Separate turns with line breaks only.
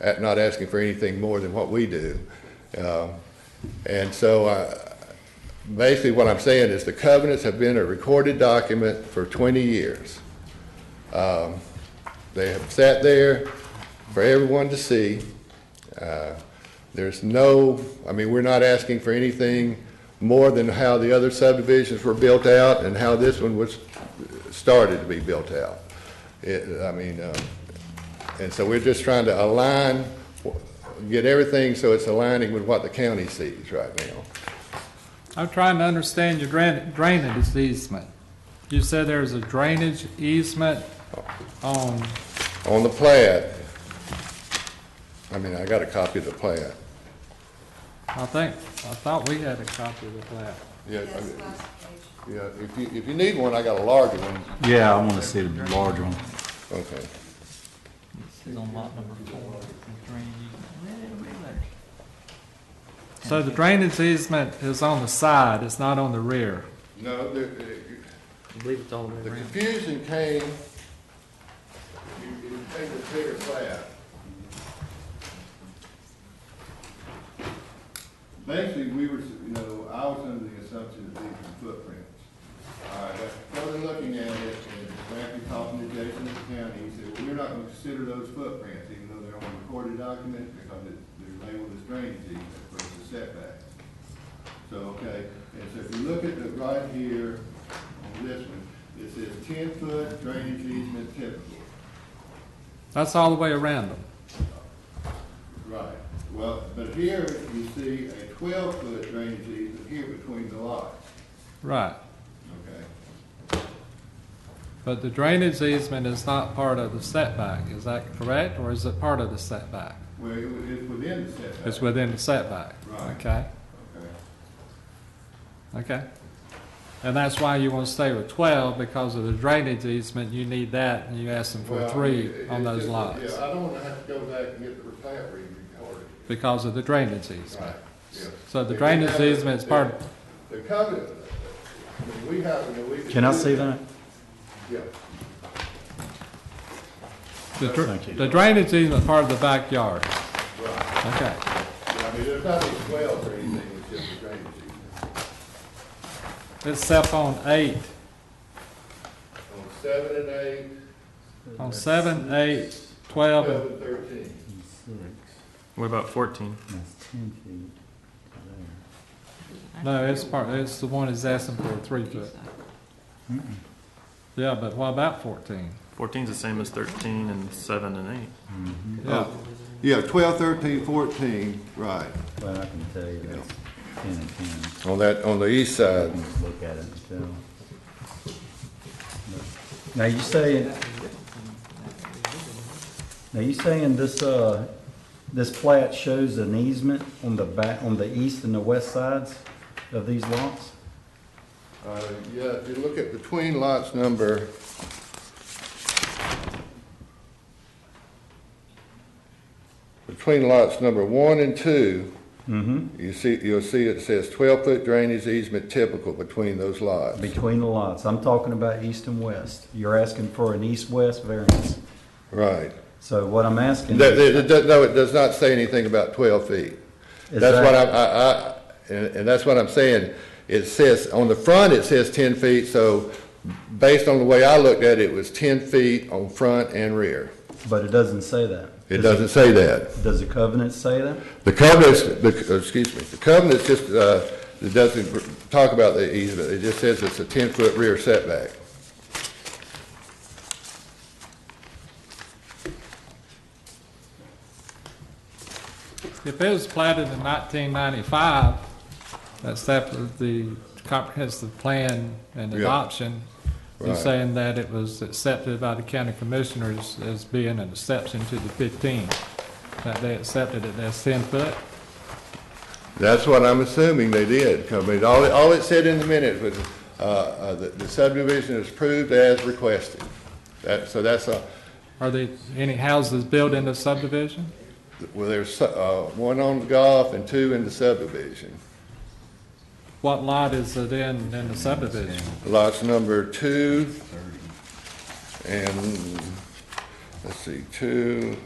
at not asking for anything more than what we do. Um, And so I, basically what I'm saying is the covenants have been a recorded document for 20 years. Um, They have sat there for everyone to see. Uh, There's no, I mean, we're not asking for anything more than how the other subdivisions were built out and how this one was started to be built out. It, I mean, um, and so we're just trying to align, get everything so it's aligning with what the county sees right now.
I'm trying to understand your drain- drainage easement. You said there's a drainage easement on,
On the plat, I mean, I got a copy of the plat.
I think, I thought we had a copy of the plat.
Yeah, I- yeah, if you, if you need one, I got a larger one.
Yeah, I want to see the larger one.
Okay.
It's on lot number four, the drainage
So the drainage easement is on the side, it's not on the rear.
No, the,
I believe it's all the
the
way around.
confusion came, you, you take the bigger plat. Basically, we were, you know, I was under the assumption that these were footprints. All right, but further looking at it, and frankly, talking to Jason at the county, he said, well, we're not gonna consider those footprints, even though they're on a recorded document, because it- they're labeled as drainage easement versus setback. So, okay, and so if you look at the right here, on this one, it says ten-foot drainage easement typical.
That's all the way around them.
Right, well, but here you see a twelve-foot drainage easement here between the lots,
Right.
okay?
But the drainage easement is not part of the setback, is that correct? Or is it part of the setback?
Where it was, it's within the setback.
It's within the setback?
Right.
Okay,
Okay.
okay. And that's why you want to stay with 12, because of the drainage easement, you need that, and you asked them for
Well,
three
it-
on
it's
those
just-
lots,
Yeah, I don't wanna have to go back and get the plat re-recorded.
because of the drainage
Right,
easement.
yeah.
So
If
the
you
drainage
have a-
easement is part,
The covenant, I mean, we have, you know, we.
Can I
do
see that?
Yeah,
the dr-
Thank you.
the drainage easement is part of the backyard,
right.
okay.
Yeah, I mean, there's nothing swell or anything, it's just a drainage easement.
Except on eight,
On seven and eight,
on seven, eight, 12,
twelve
and
and thirteen.
What about fourteen?
No, it's part, it's the one that's asking for a three foot. Yeah, but what about fourteen?
Fourteen's the same as thirteen and seven and eight.
Oh,
Yeah,
Yeah, twelve, thirteen, fourteen, right.
Well, I can tell you that's ten and ten.
On that, on the east side.
You can Look at it and tell. Now, you saying, now you saying this, uh, this plat shows an easement on the back, on the east and the west sides of these lots?
Uh, yeah, if you look at between lots number. Between lots number one and two,
Mm-hmm.
you see, you'll see it says twelve foot drainage easement typical between those lots.
Between the lots. I'm talking about east and west. You're asking for an east-west variance.
Right.
So what I'm asking.
No, it- it does- no, it does not say anything about twelve feet.
Is
That's
that-
what I'm, I, I, and, and that's what I'm saying. It says, on the front, it says ten feet, so based on the way I looked at it, it was ten feet on front and rear.
But it doesn't say that.
It doesn't say that.
Does the covenant say that?
The covenants, the, uh, excuse me, the covenants just, uh, it doesn't talk about the easement. It just says it's a ten-foot rear setback.
if it was platted in nineteen ninety-five, that's after the comprehensive plan and
Yeah.
adoption, you're
Right.
saying that it was accepted by the county commissioners as being an exception to the fifteen, that they accepted it as ten foot?
That's what I'm assuming they did, 'cause I mean, all, all it said in the minutes was, uh, uh, the the subdivision is approved as requested. That, so that's a,
Are there any houses built in the subdivision?
Well, there's uh, one on the golf and two in the subdivision.
What lot is it in, in the subdivision?
Lots number two and, let's see, two,